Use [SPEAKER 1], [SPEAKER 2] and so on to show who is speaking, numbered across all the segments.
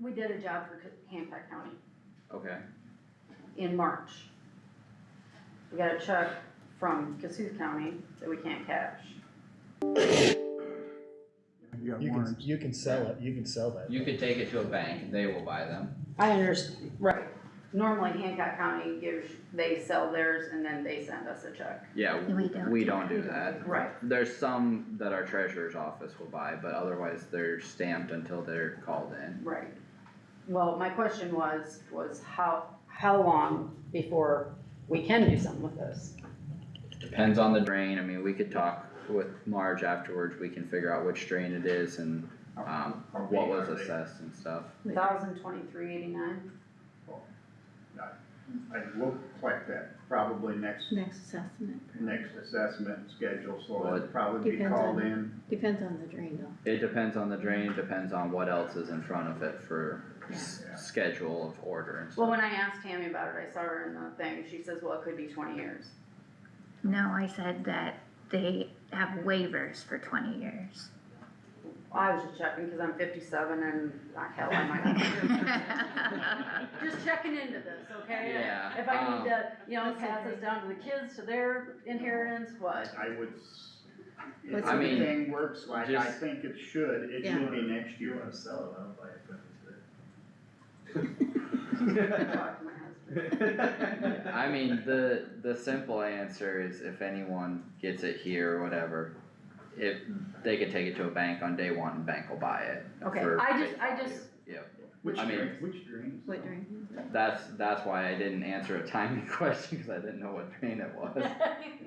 [SPEAKER 1] We did a job for Co- Hancock County
[SPEAKER 2] okay,
[SPEAKER 1] in March. We got a check from Cassuth County that we can't cash.
[SPEAKER 3] You got
[SPEAKER 4] You can,
[SPEAKER 3] warrants.
[SPEAKER 4] you can sell it, you can sell that.
[SPEAKER 2] you could take it to a bank, and they will buy them,
[SPEAKER 1] I understand, right. Normally Hancock County gives, they sell theirs and then they send us a check.
[SPEAKER 2] yeah,
[SPEAKER 5] We don't.
[SPEAKER 2] we don't do that.
[SPEAKER 1] Right.
[SPEAKER 2] There's some that our treasurer's office will buy, but otherwise they're stamped until they're called in.
[SPEAKER 1] Right. Well, my question was, was how, how long before we can do something with this?
[SPEAKER 2] Depends on the drain, I mean, we could talk with Marge afterwards, we can figure out which drain it is and, um, what was assessed and stuff.
[SPEAKER 1] Thousand twenty-three eighty-nine?
[SPEAKER 3] I will collect that probably next,
[SPEAKER 5] Next assessment,
[SPEAKER 3] next assessment schedule, so
[SPEAKER 2] Well,
[SPEAKER 3] it'll probably be
[SPEAKER 5] Depends
[SPEAKER 3] called
[SPEAKER 5] on-
[SPEAKER 3] in.
[SPEAKER 5] depends on the drain though.
[SPEAKER 2] It depends on the drain, depends on what else is in front of it for s-
[SPEAKER 3] Yeah.
[SPEAKER 2] schedule of order and
[SPEAKER 1] Well,
[SPEAKER 2] stuff.
[SPEAKER 1] when I asked Tammy about it, I saw her in the thing, she says, well, it could be twenty years.
[SPEAKER 5] No, I said that they have waivers for twenty years.
[SPEAKER 1] I was just checking, cause I'm fifty-seven and, ah, hell, I might not. Just checking into this, okay?
[SPEAKER 2] Yeah,
[SPEAKER 1] If I
[SPEAKER 2] um,
[SPEAKER 1] need to, you know, pass this down to the kids, to their inheritance, what?
[SPEAKER 3] I would, s- if
[SPEAKER 5] What's the- I
[SPEAKER 2] mean,
[SPEAKER 3] everything works like I
[SPEAKER 2] just-
[SPEAKER 3] think it should, it
[SPEAKER 5] Yeah.
[SPEAKER 3] should be next year.
[SPEAKER 6] sell it, I'll buy it from
[SPEAKER 1] Talk to my husband.
[SPEAKER 6] today.
[SPEAKER 2] I mean, the, the simple answer is if anyone gets it here or whatever, if, they could take it to a bank on day one and bank will buy it.
[SPEAKER 1] Okay,
[SPEAKER 2] for
[SPEAKER 1] I just-
[SPEAKER 2] face
[SPEAKER 1] I
[SPEAKER 2] value.
[SPEAKER 1] just-
[SPEAKER 2] Yep,
[SPEAKER 3] Which
[SPEAKER 2] I mean-
[SPEAKER 3] drain, which drains?
[SPEAKER 5] What
[SPEAKER 3] though?
[SPEAKER 5] drain is it?
[SPEAKER 2] that's, that's why I didn't answer a timing question, cause I didn't know what drain it was.
[SPEAKER 3] Yeah.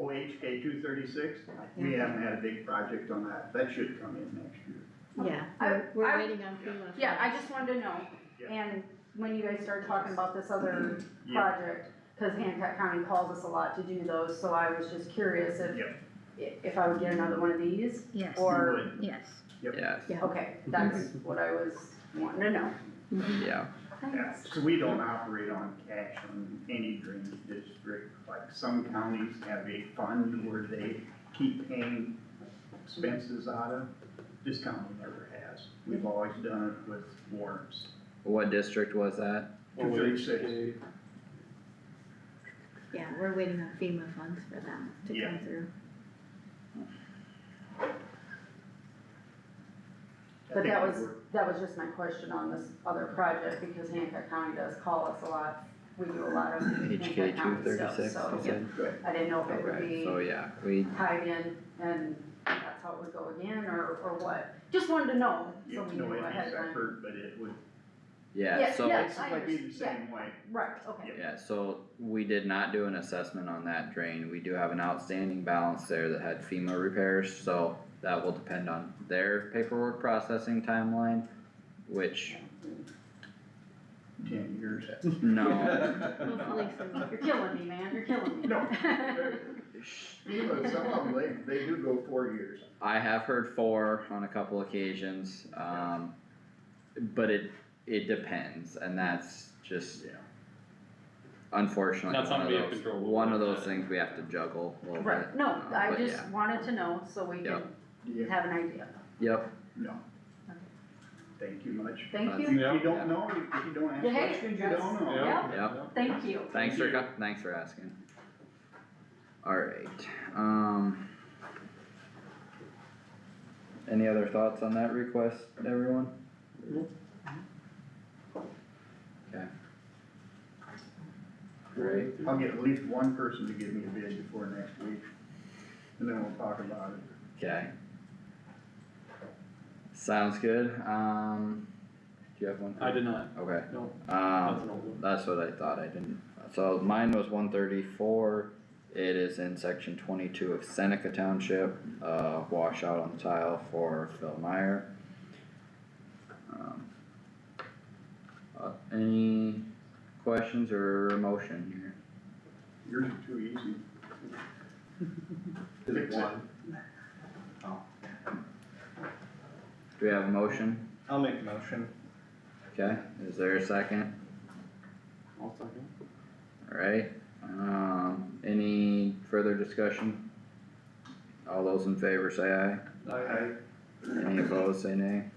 [SPEAKER 3] OHK two thirty-six, we
[SPEAKER 5] Yeah.
[SPEAKER 3] haven't had a big project on that, that should come in next year.
[SPEAKER 5] Yeah,
[SPEAKER 1] I-
[SPEAKER 5] we're,
[SPEAKER 1] I-
[SPEAKER 5] we're waiting on FEMA. for
[SPEAKER 1] Yeah,
[SPEAKER 5] that.
[SPEAKER 1] I just wanted to know,
[SPEAKER 3] Yeah.
[SPEAKER 1] and when you guys started talking about this other
[SPEAKER 3] Yeah,
[SPEAKER 1] project, cause Hancock County calls us a lot to do those, so I was just curious if,
[SPEAKER 3] Yep.
[SPEAKER 1] i- if I would get another one of these,
[SPEAKER 5] Yes,
[SPEAKER 3] you
[SPEAKER 1] or-
[SPEAKER 3] would.
[SPEAKER 5] yes,
[SPEAKER 2] Yes,
[SPEAKER 5] yeah.
[SPEAKER 1] okay, that's
[SPEAKER 2] Mm-hmm.
[SPEAKER 1] what I was wanting to know.
[SPEAKER 5] Mhm.
[SPEAKER 2] yeah,
[SPEAKER 3] Yeah, so we don't operate on cash on any drainage district, like some counties have a fund where they keep paying expenses out of. This county never has, we've always done it with warrants.
[SPEAKER 2] what district was that?
[SPEAKER 3] Two thirty-six,
[SPEAKER 5] Yeah, we're waiting on FEMA funds for them to
[SPEAKER 3] Yeah.
[SPEAKER 5] come through.
[SPEAKER 3] I
[SPEAKER 1] But
[SPEAKER 3] think
[SPEAKER 1] that
[SPEAKER 3] we
[SPEAKER 1] was,
[SPEAKER 3] were-
[SPEAKER 1] that was just my question on this other project, because Hancock County does call us a lot, we do a lot of Hancock
[SPEAKER 2] HK two
[SPEAKER 1] County
[SPEAKER 2] thirty-six,
[SPEAKER 1] stuff, so,
[SPEAKER 2] you said?
[SPEAKER 3] Good,
[SPEAKER 1] I didn't know if it would
[SPEAKER 2] Okay,
[SPEAKER 1] be
[SPEAKER 2] so yeah, we,
[SPEAKER 1] tied in, and that's how it would go again, or, or what, just wanted to know, so
[SPEAKER 3] you
[SPEAKER 1] we
[SPEAKER 3] know,
[SPEAKER 1] knew
[SPEAKER 3] it'd be
[SPEAKER 1] ahead of time.
[SPEAKER 3] separate, but it would,
[SPEAKER 2] yeah,
[SPEAKER 1] Yeah,
[SPEAKER 2] so.
[SPEAKER 1] yeah.
[SPEAKER 3] it's like be the
[SPEAKER 1] understand.
[SPEAKER 3] same way.
[SPEAKER 1] Right, okay,
[SPEAKER 2] Yeah, so we did not do an assessment on that drain, we do have an outstanding balance there that had FEMA repairs, so that will depend on their paperwork processing timeline, which,
[SPEAKER 3] ten years.
[SPEAKER 2] no,
[SPEAKER 5] Hopefully soon.
[SPEAKER 1] you're killing me, man, you're killing me.
[SPEAKER 3] No. You know, some of them, they, they do go four years.
[SPEAKER 2] I have heard four on a couple occasions, um, but it, it depends, and that's just
[SPEAKER 3] Yeah.
[SPEAKER 2] unfortunately
[SPEAKER 7] That's
[SPEAKER 2] one
[SPEAKER 7] something
[SPEAKER 2] of
[SPEAKER 7] we have
[SPEAKER 2] those,
[SPEAKER 7] control over.
[SPEAKER 2] one of those things we have to juggle a little bit.
[SPEAKER 1] Right, no,
[SPEAKER 2] um,
[SPEAKER 1] I
[SPEAKER 2] but
[SPEAKER 1] just
[SPEAKER 2] yeah.
[SPEAKER 1] wanted to know, so we can
[SPEAKER 2] Yep.
[SPEAKER 3] Yeah,
[SPEAKER 1] have an idea,
[SPEAKER 2] Yep,
[SPEAKER 3] no. Thank you much.
[SPEAKER 1] thank
[SPEAKER 2] That's-
[SPEAKER 1] you,
[SPEAKER 3] If you don't know, if you don't ask
[SPEAKER 1] Yeah, hey,
[SPEAKER 3] questions, you
[SPEAKER 1] that's-
[SPEAKER 3] don't know.
[SPEAKER 1] Yeah.
[SPEAKER 2] yep.
[SPEAKER 1] thank you.
[SPEAKER 2] Thanks for,
[SPEAKER 7] Thank you.
[SPEAKER 2] co- thanks for asking. Alright, um. Any other thoughts on that request, everyone? Okay. Great,
[SPEAKER 3] I'll get at least one person to give me a bid before next week, and then we'll talk about it.
[SPEAKER 2] okay. Sounds good, um, do you have one?
[SPEAKER 7] I did not,
[SPEAKER 2] Okay,
[SPEAKER 7] no, that's
[SPEAKER 2] um,
[SPEAKER 7] an old one.
[SPEAKER 2] that's what I thought, I didn't, so mine was one thirty-four. It is in section twenty-two of Seneca Township, uh, washout on tile for Phil Meyer. Um, uh, any questions or motion here?
[SPEAKER 3] Yours are too easy. Fix it.
[SPEAKER 2] Do we have a motion?
[SPEAKER 6] I'll make a motion.
[SPEAKER 2] Okay, is there a second?
[SPEAKER 7] I'll second.
[SPEAKER 2] Alright, um, any further discussion? All those in favor say aye,
[SPEAKER 3] I-
[SPEAKER 2] any opposed say nay,